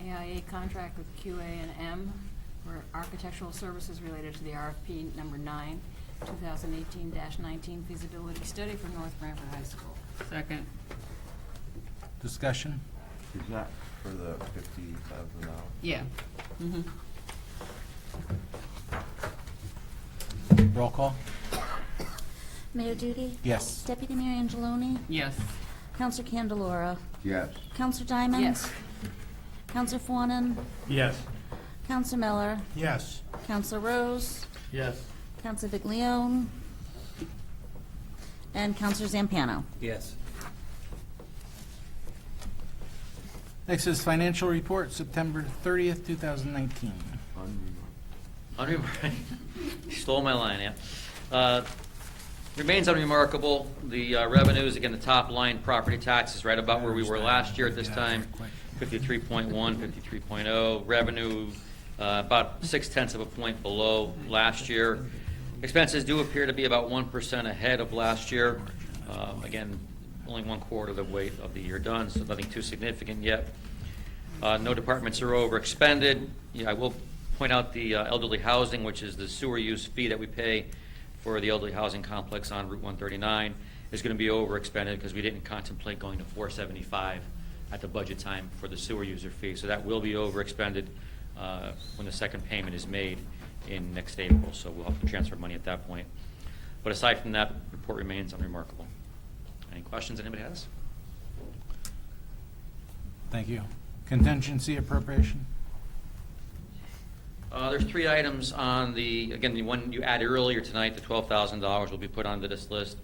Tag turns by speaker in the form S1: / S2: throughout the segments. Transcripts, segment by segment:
S1: AIA contract with QA and M for architectural services related to the RFP number nine, 2018-19 feasibility study for North Branford High School.
S2: Second.
S3: Discussion?
S4: Is that for the fifty thousand dollars?
S2: Yeah. Mm-hmm.
S3: Roll call?
S5: Mayor Duty?
S3: Yes.
S5: Deputy Mayor Angeloni?
S2: Yes.
S5: Counselor Candelora?
S4: Yes.
S5: Counselor Diamond?
S1: Yes.
S5: Counselor Fawnin?
S6: Yes.
S5: Counselor Miller?
S6: Yes.
S5: Counselor Rose?
S6: Yes.
S5: Counselor Viglione? And Counselor Zampano?
S7: Yes.
S3: Next is financial report, September 30th, 2019.
S7: Unremarkable. Stole my line, yeah. Uh, Remains unremarkable. The uh, revenues, again, the top line, property tax is right about where we were last year at this time, 53.1, 53.0. oh. Revenue, uh, about six tenths of a point below last year. Expenses do appear to be about 1% ahead of last year. Uh, Again, only one quarter of the weight of the year done, so nothing too significant yet. Uh, No departments are over expended. Yeah, I will point out the uh, elderly housing, which is the sewer use fee that we pay for the elderly housing complex on Route 139, is going to be over expended because we didn't contemplate going to 475 at the budget time for the sewer user fee. So that will be over expended uh, when the second payment is made in next April. So we'll have to transfer money at that point. But aside from that, report remains unremarkable. Any questions anybody has?
S3: Thank you. Contingency appropriation?
S7: Uh, There's three items on the, again, the one you added earlier tonight, the $12,000 will be put onto this list.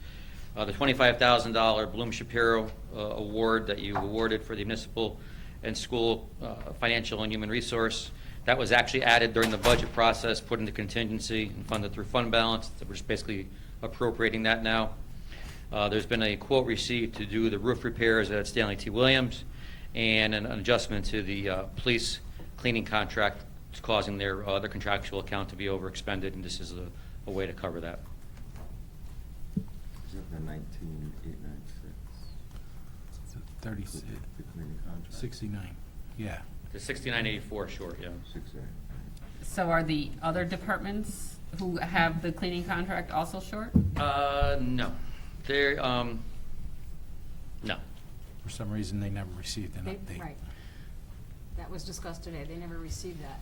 S7: Uh, The $25,000 Bloom Shapiro uh, Award that you awarded for the municipal and school uh, financial and human resource, that was actually added during the budget process, put into contingency and funded through fund balance. We're just basically appropriating that now. Uh, There's been a quote received to do the roof repairs at Stanley T. Williams and an adjustment to the uh, police cleaning contract it's causing their, uh, their contractual account to be overexpended, and this is a, a way to cover that.
S4: Is it the nineteen eight nine six?
S3: 30, 69, yeah.
S7: The sixty-nine eighty-four short, yeah.
S4: Six eight.
S2: So are the other departments who have the cleaning contract also short?
S7: Uh, no, they're, um, no,
S3: For some reason, they never received an
S1: They-
S3: update.
S1: Right. That was discussed today. They never received that.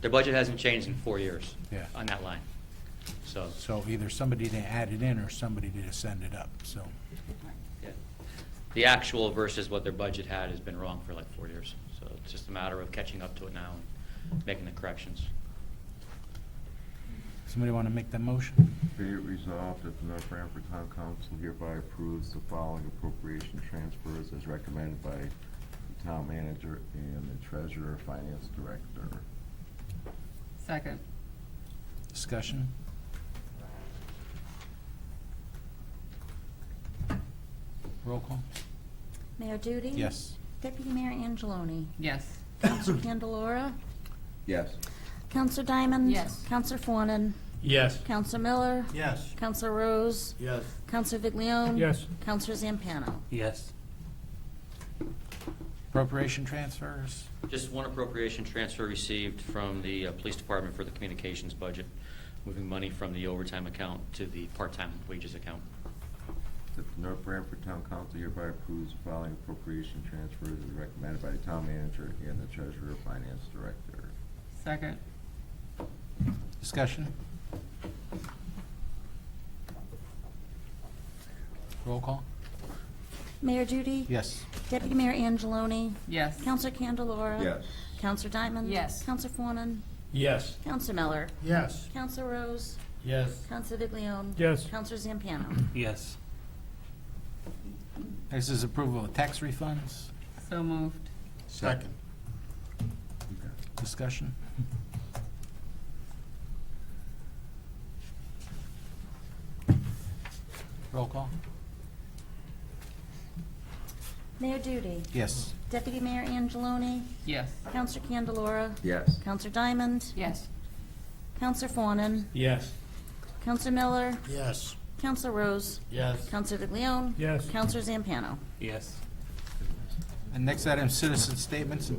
S7: their budget hasn't changed in four years.
S3: Yeah.
S7: On that line, so,
S3: So either somebody to add it in or somebody to send it up, so.
S7: yeah. The actual versus what their budget had has been wrong for like four years, so it's just a matter of catching up to it now and making the corrections.
S3: Somebody want to make that motion?
S4: Be it resolved that the North Branford Town Council hereby approves the following appropriation transfers as recommended by the town manager and the treasurer, finance director.
S2: Second.
S3: Discussion? Roll call?
S5: Mayor Duty?
S3: Yes.
S5: Deputy Mayor Angeloni?
S2: Yes.
S5: Counselor Candelora?
S4: Yes.
S5: Counselor Diamond?
S1: Yes.
S5: Counselor Fawnin?
S6: Yes.
S5: Counselor Miller?
S6: Yes.
S5: Counselor Rose?
S6: Yes.
S5: Counselor Viglione?
S6: Yes.
S5: Counselor Zampano?
S7: Yes.
S3: Appropriation transfers?
S7: Just one appropriation transfer received from the uh, Police Department for the communications budget, moving money from the overtime account to the part-time wages account.
S4: That the North Branford Town Council hereby approves the following appropriation transfers as recommended by the town manager and the treasurer, finance director.
S2: Second.
S3: Discussion? Roll call?
S5: Mayor Duty?
S3: Yes.
S5: Deputy Mayor Angeloni?
S2: Yes.
S5: Counselor Candelora?
S4: Yes.
S5: Counselor Diamond?
S1: Yes.
S5: Counselor Fawnin?
S6: Yes.
S5: Counselor Miller?
S6: Yes.
S5: Counselor Rose?
S6: Yes.
S5: Counselor Viglione?
S6: Yes.
S5: Counselor Zampano?
S7: Yes.
S3: Next is approval of tax refunds.
S2: So moved.
S6: Second.
S3: Discussion? Roll call?
S5: Mayor Duty?
S3: Yes.
S5: Deputy Mayor Angeloni?
S2: Yes.
S5: Counselor Candelora?
S4: Yes.
S5: Counselor Diamond?
S1: Yes.
S5: Counselor Fawnin?
S6: Yes.
S5: Counselor Miller?
S6: Yes.
S5: Counselor Rose?
S6: Yes.
S5: Counselor Viglione?
S6: Yes.
S5: Counselor Zampano?
S7: Yes.
S3: And next item, citizen statements and